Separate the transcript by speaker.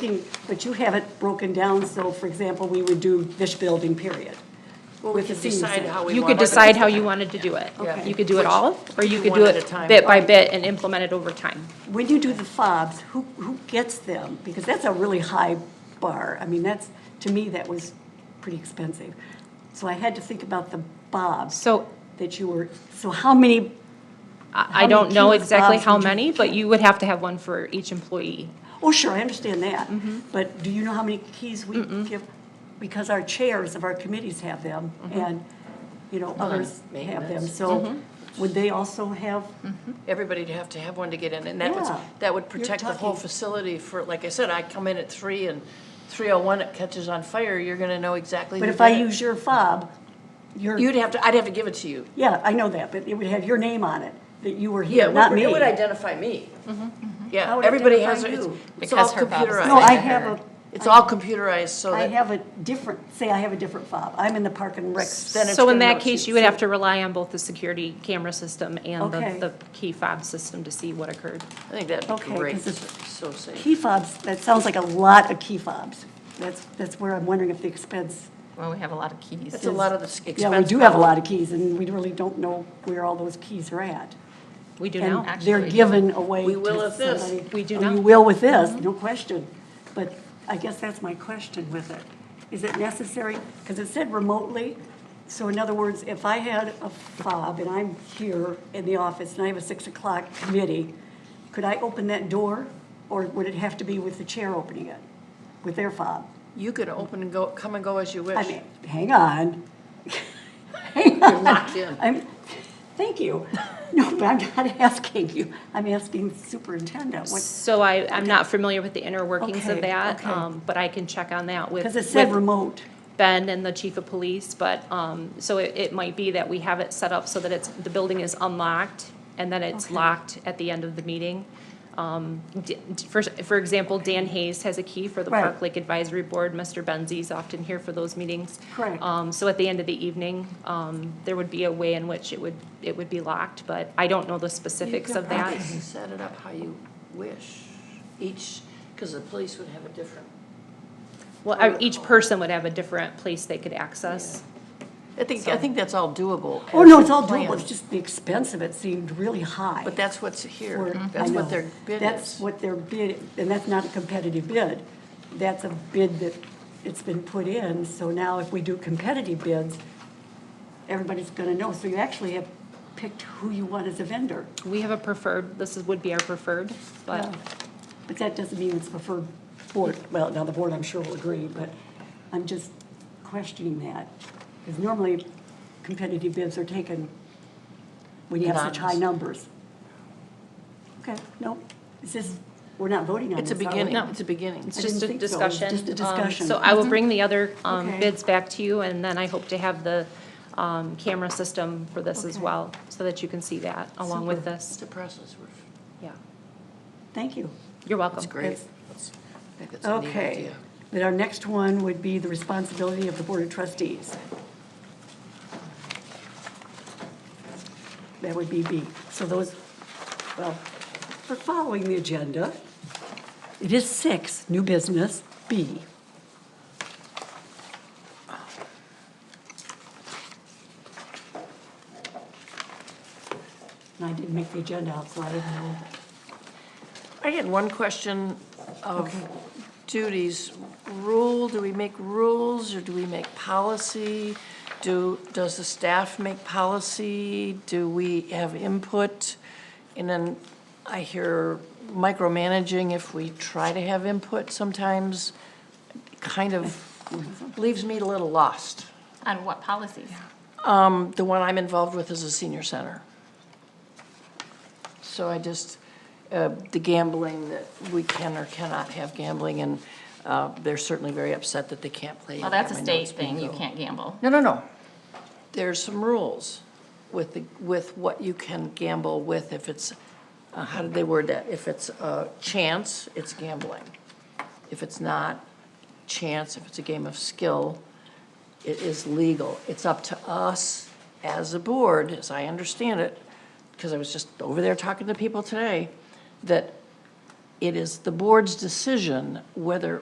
Speaker 1: looking, but you have it broken down, so for example, we would do this building, period.
Speaker 2: Well, we
Speaker 1: with the
Speaker 2: could
Speaker 1: senior
Speaker 2: decide
Speaker 1: center.
Speaker 2: how we want.
Speaker 3: You could
Speaker 2: it.
Speaker 3: decide how you wanted to do it.
Speaker 1: Okay.
Speaker 3: You could do it all, or you
Speaker 2: do
Speaker 3: could
Speaker 2: one
Speaker 3: do
Speaker 2: at a
Speaker 3: it
Speaker 2: time.
Speaker 3: bit by bit and implement it over time.
Speaker 1: When you do the fobs, who, who gets them? Because that's a really high bar. I mean, that's, to me, that was pretty expensive. So I had to think about the bobs
Speaker 3: So
Speaker 1: that you were, so how many,
Speaker 3: I I
Speaker 1: many
Speaker 3: don't know
Speaker 1: kids,
Speaker 3: exactly
Speaker 1: Bob,
Speaker 3: how
Speaker 1: would you-
Speaker 3: many, but you would have to have one for each employee.
Speaker 1: oh, sure, I understand that.
Speaker 2: Mm-hmm.
Speaker 1: But do you know how many keys we give? Because our chairs of our committees have them, and, you know, others have them.
Speaker 2: Mm-hmm. maintenance. Mm-hmm.
Speaker 1: So would they also have
Speaker 2: Everybody'd have to have one to get in, and that would,
Speaker 1: Yeah.
Speaker 2: that would
Speaker 1: You're
Speaker 2: protect the whole
Speaker 1: talking-
Speaker 2: facility for, like I said, I come in at three and three oh one, it catches on fire, you're gonna know exactly.
Speaker 1: But
Speaker 2: who
Speaker 1: if I
Speaker 2: did it.
Speaker 1: use your fob, your,
Speaker 2: You'd have to, I'd have to give it to you.
Speaker 1: yeah, I know that, but it would have your name on it, that you were
Speaker 2: Yeah,
Speaker 1: here,
Speaker 2: it
Speaker 1: not
Speaker 2: would-
Speaker 1: me.
Speaker 2: it would identify me.
Speaker 1: How
Speaker 2: Yeah,
Speaker 1: would it
Speaker 2: everybody
Speaker 1: identify
Speaker 2: has, their- it's
Speaker 1: you?
Speaker 2: it's all
Speaker 4: Because her Bob's
Speaker 2: computerized.
Speaker 1: No, I have a,
Speaker 2: It's all computerized, so
Speaker 1: I
Speaker 2: that,
Speaker 1: have a different, say I have a different fob. I'm in the park and rec.
Speaker 2: Then it's
Speaker 3: So in
Speaker 2: gonna
Speaker 3: that
Speaker 2: know
Speaker 3: case,
Speaker 2: too,
Speaker 3: you would
Speaker 2: so-
Speaker 3: have to rely on both the security camera system and the,
Speaker 1: Okay.
Speaker 3: the key fob system to see what occurred.
Speaker 2: I think that'd
Speaker 1: Okay,
Speaker 2: be great,
Speaker 1: 'cause it's-
Speaker 2: so safe.
Speaker 1: Key fobs, that sounds like a lot of key fobs. That's, that's where I'm wondering if the expense.
Speaker 4: Well, we have a lot of keys.
Speaker 2: That's a lot of the s- expense.
Speaker 1: Yeah, we do have a lot of keys and we really don't know where all those keys are at.
Speaker 3: We do
Speaker 1: And
Speaker 3: now.
Speaker 1: they're
Speaker 4: actually.
Speaker 1: given away
Speaker 2: We
Speaker 1: to
Speaker 2: will with this.
Speaker 1: somebody.
Speaker 3: We do Mm-hmm.
Speaker 1: Oh,
Speaker 3: now.
Speaker 1: You will with this, no question. But I guess that's my question with it. Is it necessary? Because it said remotely. So in other words, if I had a fob and I'm here in the office and I have a six o'clock committee, could I open that door? Or would it have to be with the chair opening it, with their fob?
Speaker 2: You could open and go, come and go as you
Speaker 1: I
Speaker 2: wish.
Speaker 1: mean, hang on.
Speaker 2: You're locked in.
Speaker 1: I'm, thank you. No, but I'm not asking you. I'm asking superintendent. What,
Speaker 3: So I, I'm not familiar with the inner workings
Speaker 1: Okay,
Speaker 3: of that,
Speaker 1: okay.
Speaker 3: um, but I can check on that with.
Speaker 1: Because it said
Speaker 3: with-
Speaker 1: remote.
Speaker 3: Ben and the chief of police, but, um, so it, it might be that we have it set up so that it's, the building is unlocked and then it's
Speaker 1: Okay.
Speaker 3: locked at the end of the meeting. Um, d- d- for, for example, Dan Hayes has a key for the
Speaker 1: Right.
Speaker 3: Park Lake Advisory Board. Mr. Benzie's often here for those meetings.
Speaker 1: Correct.
Speaker 3: Um, so at the end of the evening, um, there would be a way in which it would, it would be locked, but I don't know the specifics of
Speaker 2: You
Speaker 3: that.
Speaker 2: could probably set it up how you wish, each, because the police would have a different,
Speaker 3: Well, I- each person would have a different place they could access.
Speaker 2: I think, I think that's all doable.
Speaker 1: Oh,
Speaker 2: as
Speaker 1: no,
Speaker 2: a
Speaker 1: it's all
Speaker 2: plan,
Speaker 1: doable, it's just the expense of it seemed really high.
Speaker 2: But that's what's
Speaker 1: for-
Speaker 2: here,
Speaker 1: I
Speaker 2: that's
Speaker 1: know.
Speaker 2: what their bid
Speaker 1: That's
Speaker 2: is.
Speaker 1: what their bid, and that's not a competitive bid. That's a bid that it's been put in, so now if we do competitive bids, everybody's gonna know. So you actually have picked who you want as a vendor,
Speaker 3: We have a preferred, this is, would be our preferred, but.
Speaker 1: but that doesn't mean it's preferred board. Well, now the board, I'm sure will agree, but I'm just questioning that. Because normally competitive bids are taken when you have such high numbers.
Speaker 2: Anonymous.
Speaker 1: Okay, no, is this, we're not voting on
Speaker 2: It's
Speaker 1: this,
Speaker 2: a
Speaker 1: are we?
Speaker 2: beginning, it's a beginning.
Speaker 3: It's
Speaker 1: I
Speaker 3: just a
Speaker 1: didn't think so. It was
Speaker 3: discussion.
Speaker 1: just a
Speaker 3: Um,
Speaker 1: discussion. Mm-hmm.
Speaker 3: So I will bring the other um,
Speaker 1: Okay.
Speaker 3: bids back to you, and then I hope to have the um, camera system for this as
Speaker 1: Okay.
Speaker 3: well, so that you can see that along with
Speaker 1: Super.
Speaker 2: It's
Speaker 3: this.
Speaker 2: a process, we're,
Speaker 3: Yeah,
Speaker 1: Thank you.
Speaker 3: you're welcome.
Speaker 2: that's great.
Speaker 1: That's-
Speaker 2: That's- I think that's a neat
Speaker 1: Okay.
Speaker 2: idea.
Speaker 1: But our next one would be the responsibility of the Board of Trustees. That would be B. So those, well, we're following the agenda. It is six, new business, B. And I didn't make the agenda out, so I didn't know.
Speaker 2: I had one question of duties. Rule, do we make rules or do we make policy? Do, does the staff make policy? Do we have input? And then I hear micromanaging if we try to have input sometimes kind of leaves me a little lost.
Speaker 4: On what policies?
Speaker 2: Um, the one I'm involved with is a senior center. So I just, uh, the gambling, that we can or cannot have gambling, and, uh, they're certainly very upset that they can't play.
Speaker 4: Well, that's a
Speaker 2: I know
Speaker 4: state
Speaker 2: it's
Speaker 4: thing, you
Speaker 2: bingo.
Speaker 4: can't gamble.
Speaker 2: No, no, no. There's some rules with the, with what you can gamble with if it's, uh, how did they word that? If it's a chance, it's gambling. If it's not chance, if it's a game of skill, it is legal. It's up to us as a board, as I understand it, because I was just over there talking to people today, that it is the board's decision whether